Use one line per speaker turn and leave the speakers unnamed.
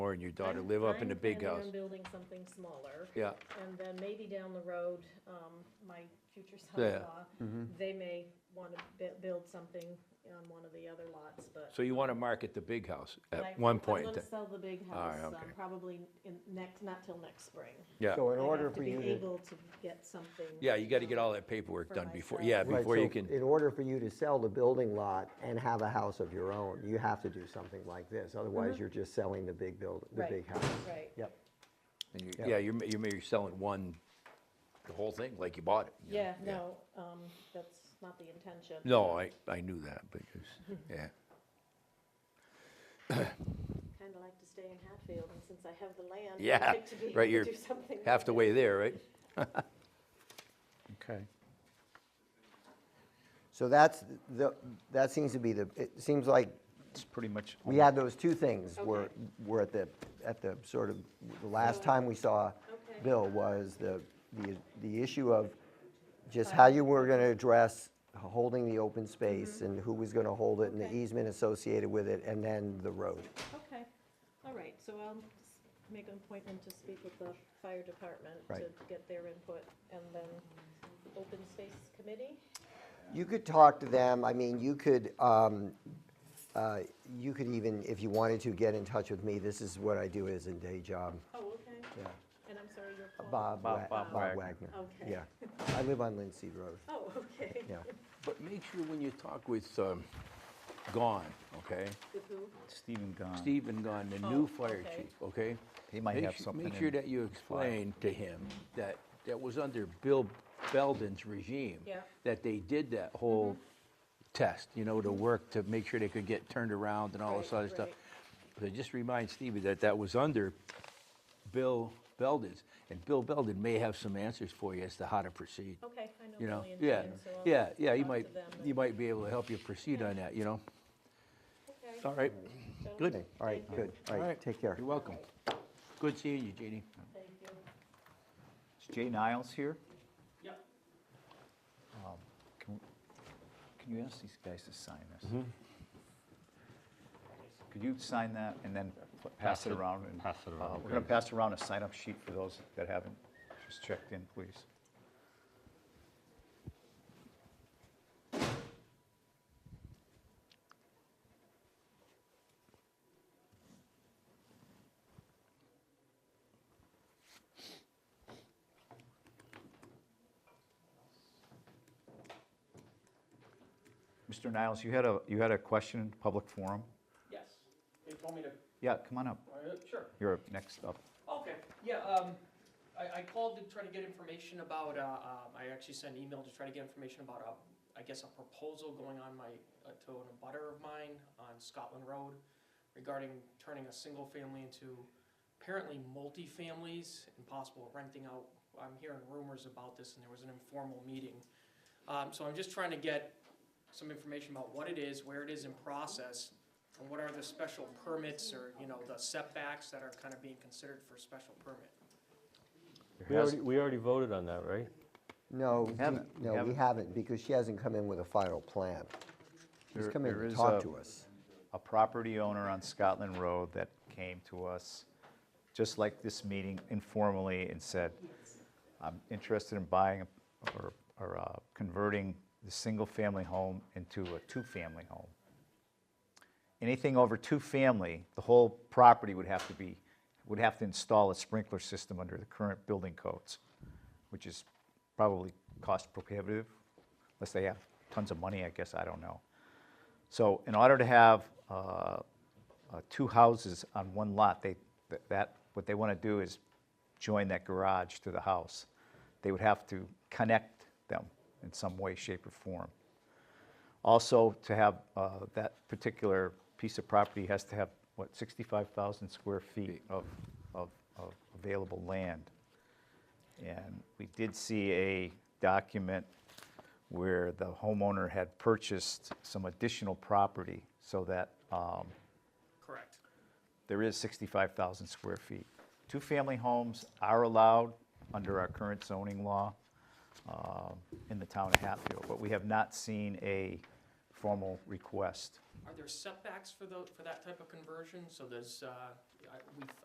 her and your daughter live up in the big house.
I'm planning on building something smaller,
Yeah,
and then maybe down the road, um, my future
Yeah. Mm-hmm.
son-in-law, they may want to bu- build something on one of the other lots, but.
so you want to market the big house
I-
at one point?
I'm
in
gonna
time.
sell the big
All right,
house, um,
okay.
probably in next, not till next spring.
Yeah,
So in
I have
order
to
for
be
you to,
Able to get something.
yeah, you got to get all that paperwork
For
done before,
myself.
yeah,
right,
before
so
you can,
in order for you to sell the building lot and have a house of your own, you have to do something like this. Otherwise, you're just selling the big build,
Mm-hmm.
the
Right,
big house.
um, Right.
Yep.
and you-
yeah.
yeah, you're, ma- you're maybe selling one, the whole thing, like you bought it. you know?
Yeah, no, um, that's not the intention.
No, I, I knew that, but, it's- yeah,
Kind of like to stay in Hatfield, and since I have the land. I'd
Yeah,
like to be
right,
able to
you're
Do something.
half the way there, right?
Okay.
So that's, the that seems to be the, it seems like
It's pretty much.
we had those two things were,
Okay.
were at the, at the sort of, the last
So-
time we saw
Okay.
Bill was the, the, the issue of just how you were gonna address holding the open space and who was gonna hold it and the
Mm-hmm. Okay.
easement associated with it and then the road.
Okay, all right, so I'll s- make an appointment to speak with the fire department to
Right.
get their input, and then open space committee?
You could talk to them, I mean, you could, um, uh, you could even, if you wanted to, get in touch with me. This is what I do as a day job,
Oh, okay,
yeah.
and I'm sorry, you're called?
Bob, Wa-
Bob-
Bob
Bob
Wagner.
Wagner.
Okay.
Yeah, I live on Lindsay Road,
Oh, okay.
yeah.
But make sure when you talk with, um, Gone, okay?
With who?
Stephen gone.
Stephen Gone, the
Oh,
new fire
okay.
chief, okay?
He might
Make
have
su-
something
Make sure
in
that you explain to him that, that was under Bill Belden's regime.
Yeah. Mm-hmm.
That they did that whole test, you know, to work to make sure they could get turned around and all this
Right,
other stuff. So
right.
just remind Stevie that that was under Bill Belden's, and Bill Belden may have some answers for you as to how to proceed.
Okay, I know
You know,
Billy and
yeah,
Jane, Oh, so I'll
yeah, yeah, you
talk to
might,
them and-
you might be able to help you proceed on that, you know?
Okay,
All right,
so-
good.
Okay, all right,
Thank you.
good, all right, take care.
You're welcome. Good seeing you, Jeannie.
Thank you.
Is Jay Niles here?
Yep.
Um, Can can you ask these guys to sign this?
Mm-hmm.
Could you sign that and then p- pass
Pass
it
it-
around? and,
pass it
uh,
around,
We're going to
please.
pass around a sign-up sheet for those that haven't just checked in, please. Mr. Niles, you had a, you had a question in public forum?
Yes, they told me to,
Yeah, come on up.
uh, sure.
You're up next up.
Okay, yeah, um, I, I called to try to get information about, uh, um, I actually sent an email to try to get information about, a- I guess, a proposal going on my, uh, to an abutter of mine on Scotland Road regarding turning a single family into apparently multi-families and possible renting out. I'm hearing rumors about this and there was an informal meeting. Um, so I'm just trying to get some information about what it is, where it is in process, And what are the special permits or, you know, the setbacks that are kind of being considered for special permit?
We already, we already voted on that, right?
No, we-
haven't, we
no, we
haven't.
haven't, because she hasn't come in with a final plan. She's
There-
come in
there
to
is
talk
a-
to us.
a property owner on Scotland Road that came to us, just like this meeting informally, and said, I'm interested in buying or, or uh, converting the single-family home into a two-family home. Anything over two-family, the whole property would have to be, would have to install a sprinkler system under the current building codes, which is probably cost prohibitive, unless they have tons of money, I guess, I don't know. So in order to have uh, uh, two houses on one lot, they, th- that, what they want to do is join that garage to the house. They would have to connect them in some way, shape, or form. Also, to have uh, that particular piece of property has to have, what, 65,000 square feet of, of of available land. And we did see a document where the homeowner had purchased some additional property so that um,
Correct.
there is 65,000 square feet. Two-family homes are allowed under our current zoning law um, in the town of Hatfield, but we have not seen a formal request.
Are there setbacks for those, for that type of conversion? So there's, uh, I- we